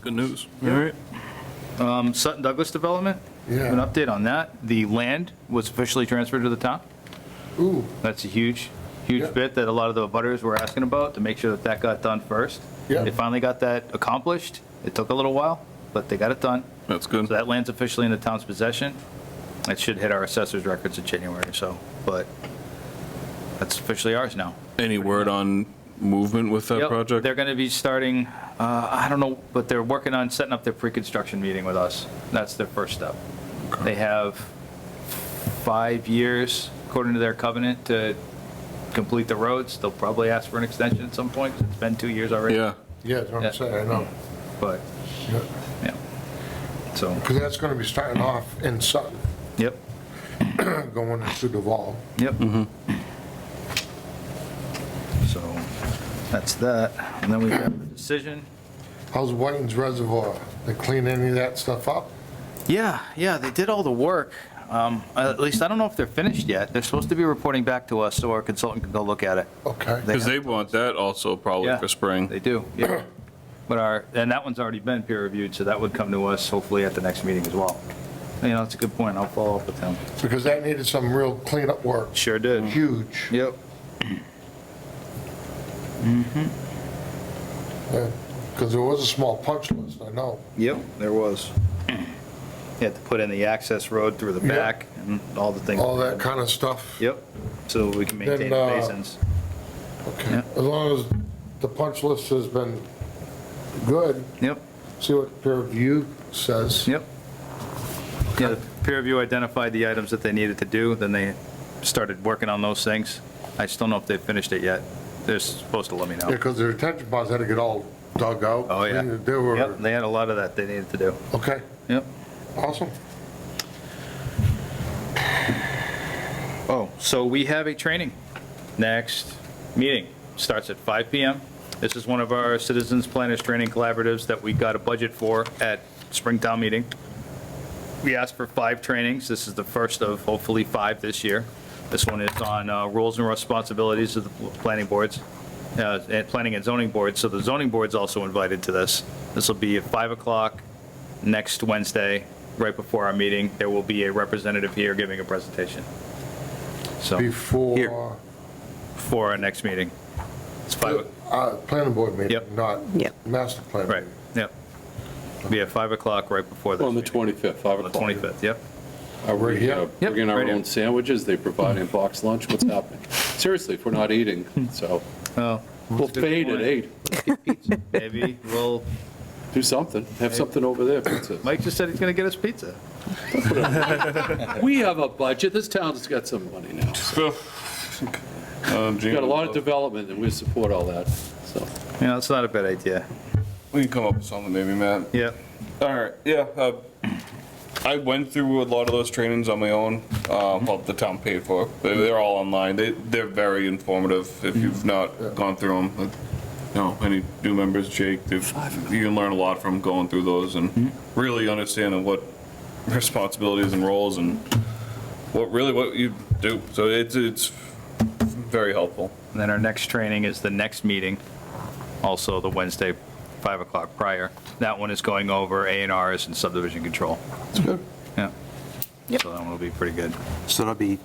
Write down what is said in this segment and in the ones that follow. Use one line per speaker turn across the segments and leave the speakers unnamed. good news. All right.
Um, Sutton Douglas development?
Yeah.
An update on that. The land was officially transferred to the town.
Ooh,
That's a huge, huge
Yep.
bit that a lot of the butters were asking about, to make sure that that got done first.
Yep.
They finally got that accomplished. It took a little while, but they got it done.
That's good.
So that land's officially in the town's possession. It should hit our assessor's records in January, so, but that's officially ours now.
Any word on movement with that
Yep,
project?
They're going to be starting, uh, I don't know, but they're working on setting up their pre-construction meeting with us. That's their first step. They have five years, according to their covenant, to complete the roads. They'll probably ask for an extension at some point, 'cause it's been two years already.
Yeah,
yeah, that's what
Yeah.
I'm saying, I know.
But, yeah, so,
Because that's going to be starting off in Sutton,
yep,
going into Duval.
yep.
Mm-hmm.
So, that's that. And then we have the decision.
How's Whiting's Reservoir? They clean any of that stuff up?
Yeah, yeah, they did all the work. Um, At least, I don't know if they're finished yet. They're supposed to be reporting back to us, so our consultant can go look at it.
Okay.
because they want that also probably
Yeah,
for spring.
They do, yeah. But our, and that one's already been peer-reviewed, so that would come to us hopefully at the next meeting as well. You know, that's a good point. I'll follow up with them.
Because that needed some real cleanup work,
Sure did.
huge.
Yep.
Because there was a small punch list, I know.
Yep, there was. You had to put in the access road through the
Yeah.
back and all the things.
All that kind of stuff.
Yep, so we can maintain
Then,
the
uh,
basins.
Okay.
Yeah.
As long as the punch list has been good,
Yep.
see what the peer review says.
Yep. Yeah, the peer review identified the items that they needed to do, then they started working on those things. I just don't know if they finished it yet. They're supposed to let me
Yeah,
know.
because the retention ponds had to get all dug out.
Oh, yeah.
cleaned. They
Yep,
were,
they had a lot of that they needed to do.
okay,
Yep.
awesome.
Oh, so we have a training. Next meeting starts at 5 PM. This is one of our Citizens Planners Training Collaboratives that we got a budget for at Springtown Meeting. We asked for five trainings. This is the first of hopefully five this year. This one is on uh, roles and responsibilities of the planning boards, uh, and planning and zoning boards. So the zoning board's also invited to this. This will be at 5 o'clock next Wednesday, right before our meeting. There will be a representative here giving a presentation. So
Before,
for our next meeting. It's five,
uh, planning board
Yep.
meeting, not
Yep.
master plan.
right,
meeting.
yep. Be at 5 o'clock right before this
On the
meeting.
25th, 5
On the
o'clock.
25th, yep.
Are
Right
we
here?
uh,
Yep,
bringing our
right here. Hmm.
own sandwiches? They provide in box lunch? What's happening? Seriously, if we're not eating, so
Oh,
we'll
good
fade at
point.
8. Let's get pizza.
maybe, well,
Do something. Have something over there. pizza.
Mike just said he's going to get us pizza.
We have a budget. This town's got some money now.
Um,
We've got a
Gina,
lot of development and we support all that, so.
You know, it's not a bad idea.
We can come up with something maybe, Matt.
Yep,
All right, yeah. uh, I went through a lot of those trainings on my own, uh,
Mm-hmm.
well, the town paid for. it. They- They're all online. They, they're very informative
Mm-hmm.
if you've not gone through them. No, any new members, Jake, they've- you can learn a lot from going through those and
Mm-hmm.
really understanding what responsibilities and roles and what, really what you do. So it's, it's very helpful.
and then our next training is the next meeting, also the Wednesday, 5 o'clock prior. That one is going over A and Rs and subdivision control. That's good. Yeah.
Yep.
So that one will be pretty good.
So that'll be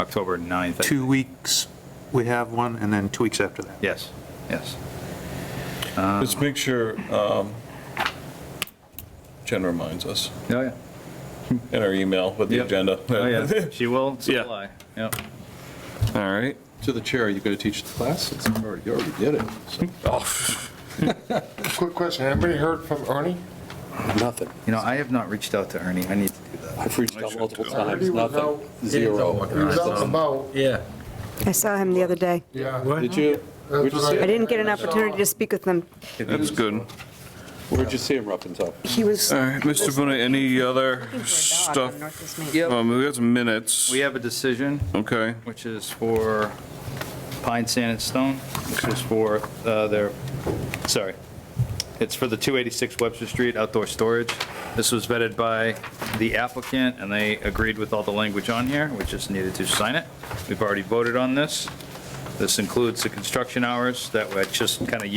October 9th. I-
two weeks, we have one, and then two weeks after that.
Yes, yes. Uh-huh.
Just make sure um, Jen reminds us
Oh, yeah.
in our email with the
Yep.
agenda.
Oh, yeah, she will
Yeah.
supply, yep.
All right.
To the chair, are you going to teach the class? It's already- You already did it. so.
Quick question, anybody heard from Ernie?
Nothing.
You know, I have not reached out to Ernie. I need to do that.
I've reached out multiple
Already
times,
was
nothing. Zero.
He was out and about,
Yeah.
I saw him the other day.
yeah.
Did you? Where'd you
what
see
I
him?
didn't get an opportunity to speak with him.
That's good.
Where'd you see him, Ruppen's up?
He was.
All right, Mr. Bonet, any other stuff? Um, we got some minutes.
We have a decision,
Okay,
which is for Pine Sand and Stone, which is for uh, their, sorry, it's for the 286 Webster Street outdoor storage. This was vetted by the applicant, and they agreed with all the language on here. We just needed to sign it. We've already voted on this. This includes the construction hours that I just kind of